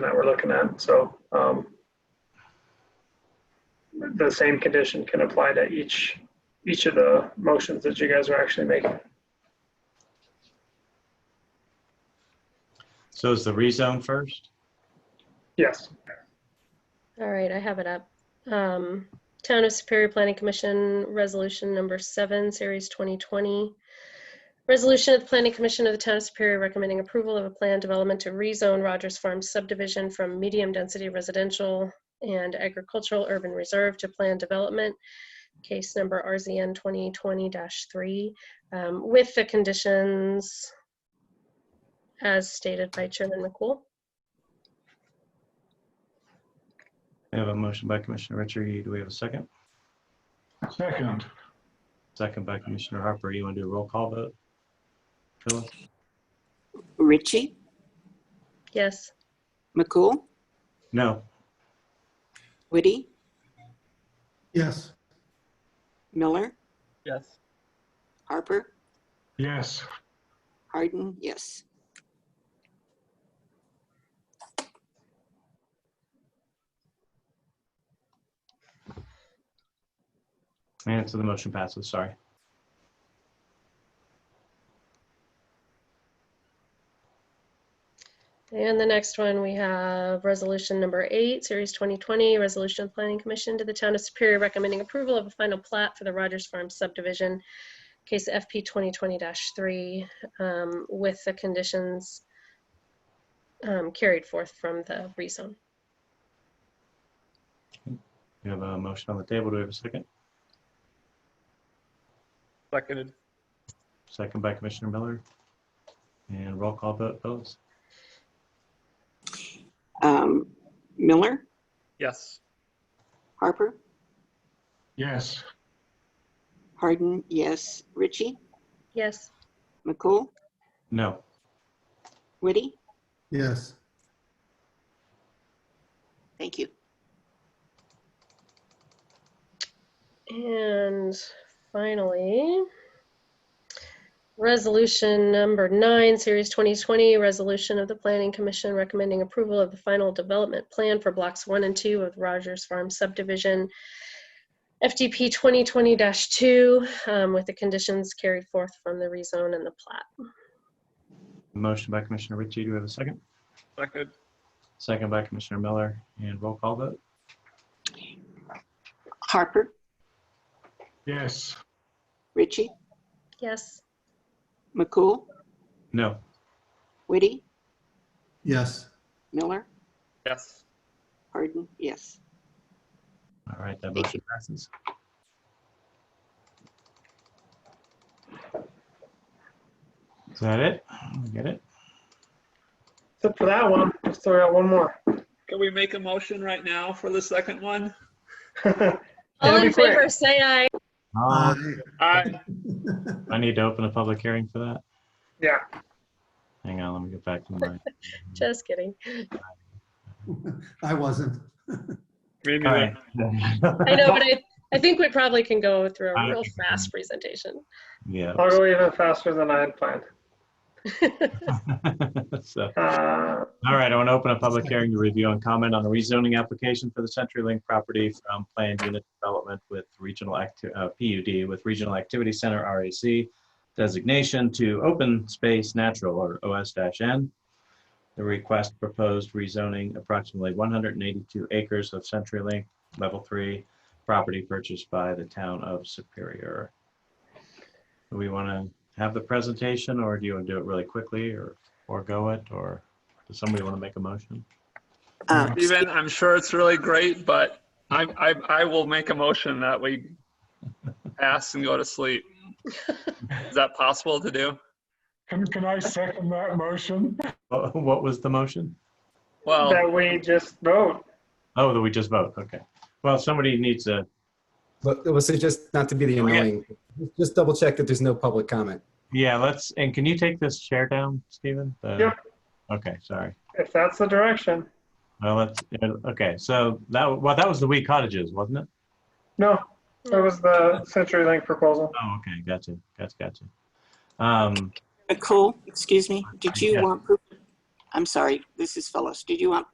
that we're looking at, so, um, the same condition can apply to each, each of the motions that you guys are actually making. So is the rezone first? Yes, All right, I have it up. Um, Town of Superior Planning Commission, Resolution Number 7, Series 2020. Resolution of the Planning Commission of the Town of Superior recommending approval of a plan development to rezone Rogers Farm subdivision from medium-density residential and agricultural urban reserve to planned development, case number RZN 2020-3, um, with the conditions as stated by Chairman McCool. We have a motion by Commissioner Ritchie. Do we have a second? Second, Second by Commissioner Harper. You want to do a roll call vote? Phyllis? Ritchie, Yes, McCool, No. Whitty, Yes, Miller, yes, Harper, yes, Hardin, yes. And so the motion passes. Sorry. And the next one, we have resolution number eight, series 2020, resolution of planning commission to the town of Superior recommending approval of a final plat for the Rogers Farm subdivision, case FP 2020-3, um, with the conditions um, carried forth from the rezone. We have a motion on the table. Do we have a second? seconded, Second by Commissioner Miller. And roll call vote, Phyllis? Um, Miller, yes, Harper, yes, Hardin, yes. Ritchie, Yes, McCool, No. Whitty, yes, thank you. and finally, resolution number nine, series 2020, resolution of the planning commission recommending approval of the final development plan for blocks one and two of Rogers Farm subdivision, FDP 2020-2, um, with the conditions carried forth from the rezone and the plat. Motion by Commissioner Ritchie. Do we have a second? seconded, Second by Commissioner Miller. And roll call vote? Harper, yes, Ritchie, Yes, McCool, No. Whitty, yes, Miller, yes. Hardin, yes. All right, that Thank motion passes. Is that it? We Get it? except for that one, let's throw out one more. Can we make a motion right now for the second one? all That'll in be quick. favor, say aye. Uh, aye, Aye. Um, I need to open a public hearing for that. Yeah, Hang on, let me get back to my. Just kidding. I wasn't. Maybe All the- right. I know, but I, I think we probably can go through I- a real fast presentation. Yeah. I'll go even faster than I had planned. So, Uh, all right, I want to open a public hearing to review and comment on a rezoning application for the CenturyLink property from planned unit development with regional acti- uh, PUD with Regional Activity Center RAC designation to open space natural or OS-N. The request proposed rezoning approximately 182 acres of CenturyLink Level 3 property purchased by the town of Superior. Do we want to have the presentation or do you want to do it really quickly or forego it? Or does somebody want to make a motion? Um, Steven, I'm sure it's really great, but I, I, I will make a motion that we pass and go to sleep. Is that possible to do? can, can I second that motion? Wha- What was the motion? Well, That we just vote. Oh, that we just vote. Okay. Well, somebody needs to, But it was just not to be the Okay. annoying. Just double check that there's no public comment. yeah, let's, and can you take this chair down, Stephen? The- Yep. Okay, sorry. If that's the direction. Well, let's, uh, okay, so that, well, that was the Wee Cottages, wasn't it? No, it was the CenturyLink proposal. Oh, okay, gotcha, gotcha, gotcha. Um, McCool, excuse me, did you Yes. want, proof? I'm sorry, this is Phyllis, did you want